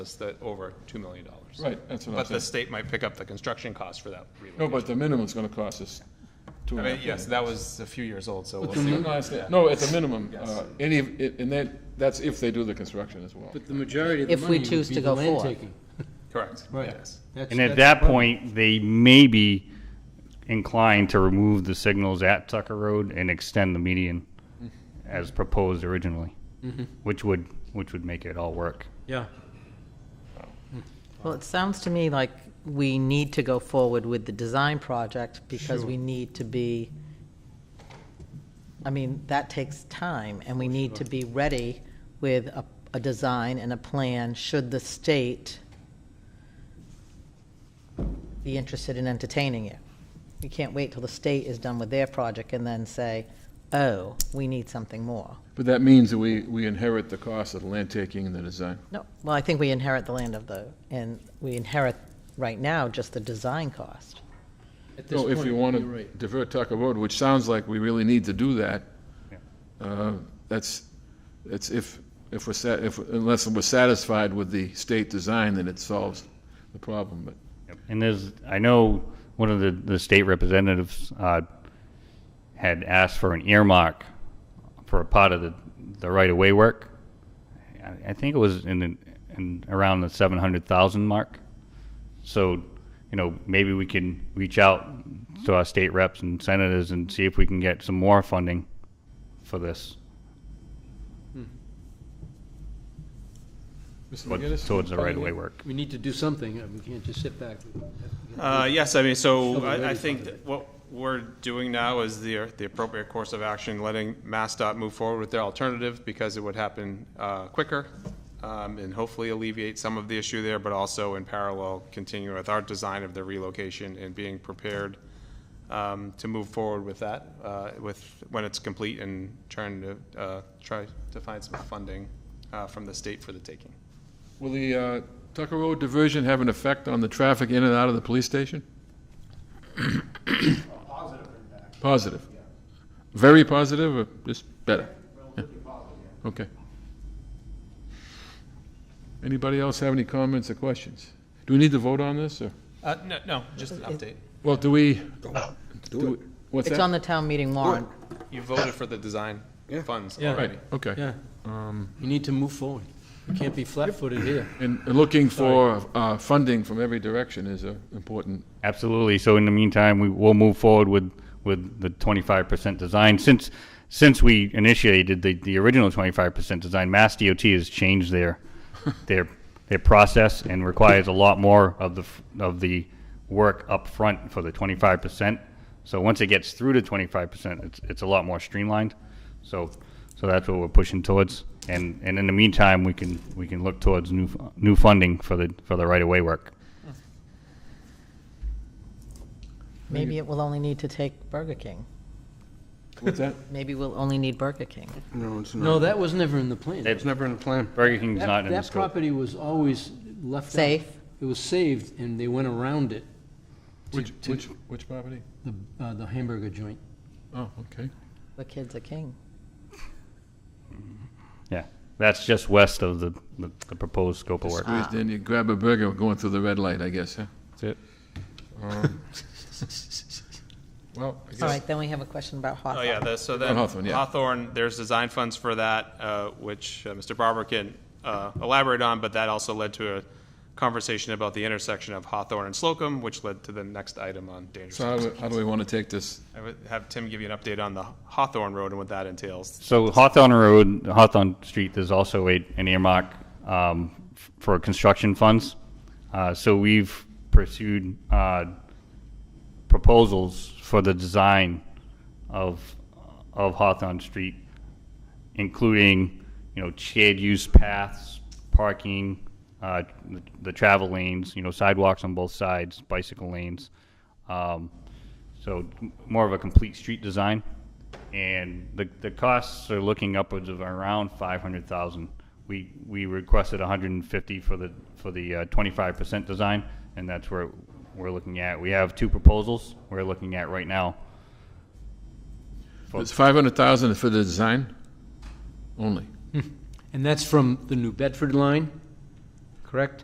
is that over $2 million. Right, that's what I'm But the saying. state might pick up the construction cost for that No, relocation. but the minimum's gonna cost us two I and a mean, half. yes, that was a few years old, so we'll But the see. min- what- no, I yeah. understand. No, at the minimum, Yes. uh, any, it- and that, that's if they do the construction as well. But the majority of the If we money would choose be to the go land forward. taking. Correct, Right. yes. That's- And at that's that the problem. point, they may be inclined to remove the signals at Tucker Road and extend the median Mm-hmm. as proposed originally, which would, which would make it all work. Yeah, Well, it sounds to me like we need to go forward with the design project because we need to be, I mean, that takes time, and we need to be ready with a, a design and a plan should the state be interested in entertaining it. You can't wait till the state is done with their project and then say, oh, we need something more. But that means that we, we inherit the cost of the land taking and the design. No, well, I think we inherit the land of the, and we inherit right now just the design cost. at this So if point, we you're want to right. divert Tucker Road, which sounds like we really need to do that, uh, that's, that's if, if we're, sa- if, unless we're satisfied with the state design, then it solves the problem, but. And there's, I know one of the, the state representatives, uh, had asked for an earmark for a part of the, the right-of-way work. I, I think it was in, the- in, around the seven hundred thousand mark. So, you know, maybe we can reach out to our state reps and senators and see if we can get some more funding for this, towards the right-of-way work. We need to do something, Uh, we can't just sit back. Uh, yes, I mean, so Shovel I, I ready think part of that what we're doing now is the, the appropriate course of action, letting MassDOT move forward with their alternative because it would happen, uh, quicker. Um, and hopefully alleviate some of the issue there, but also in parallel, continue with our design of the relocation and being prepared, um, to move forward with that, uh, with, when it's complete and trying to, uh, try to find some funding, uh, from the state for the taking. Will the uh, Tucker Road diversion have an effect on the traffic in and out of the police station? Positive impact. Positive? Very positive, or just better? Okay. Anybody else have any comments or questions? Do we need to vote on this, or? Uh, no, no, just an update. Well, do we? Do it. What's that? It's on the town meeting warrant. You voted for the design Yeah. funds Yeah. already. Right, okay. Yeah, um, you need to move forward. You can't be flat-footed here. And and looking for uh, funding from every direction is an important Absolutely. So in the meantime, we will move forward with, with the twenty-five percent design. Since, since we initiated the, the original twenty-five percent design, Mass DOT has changed their, their, their process and requires a lot more of the, f- of the work up front for the twenty-five percent. So once it gets through to twenty-five percent, it's, it's a lot more streamlined. So, so that's what we're pushing towards. And, and in the meantime, we can, we can look towards new, f- new funding for the, for the right-of-way work. Maybe it will only need to take Burger King. What's that? Maybe we'll only need Burger King. No, it's not. No, that was never in the plan. That- It's never in the plan. Burger King's That- not in the That scope. property was always left out. Safe. It was saved, and they went around it, Which, to- which, which property? the uh, the hamburger joint. Oh, okay. The kid's a king. Yeah, that's just west of the, the, the proposed scope of work. Squeeze in, you grab a burger going through the red light, I guess, huh? Um, That's it. Well, I All guess, right, then we have a question about Hawthorne. Oh, yeah, the- so then Hawthorne, yeah. Hawthorne, there's design funds for that, uh, which uh, Mr. Barber can uh, elaborate on, but that also led to a conversation about the intersection of Hawthorne and Slocum, which led to the next item on dangerous. so how do, how do we want to take this? I would have Tim give you an update on the Hawthorne Road and what that entails. So Hawthorne Road, Hawthorne Street, there's also a, an earmark, um, f- for construction funds. Uh, so we've pursued, uh, proposals for the design of, of Hawthorne Street, including, you know, shared use paths, parking, uh, the, the travel lanes, you know, sidewalks on both sides, bicycle lanes. Um, so m- more of a complete street design. And the, the costs are looking upwards of around five hundred thousand. We, we requested a hundred and fifty for the, for the uh, twenty-five percent design, and that's where we're looking at. We have two proposals we're looking at right now. It's five hundred thousand for the design only. And that's from the New Bedford line correct?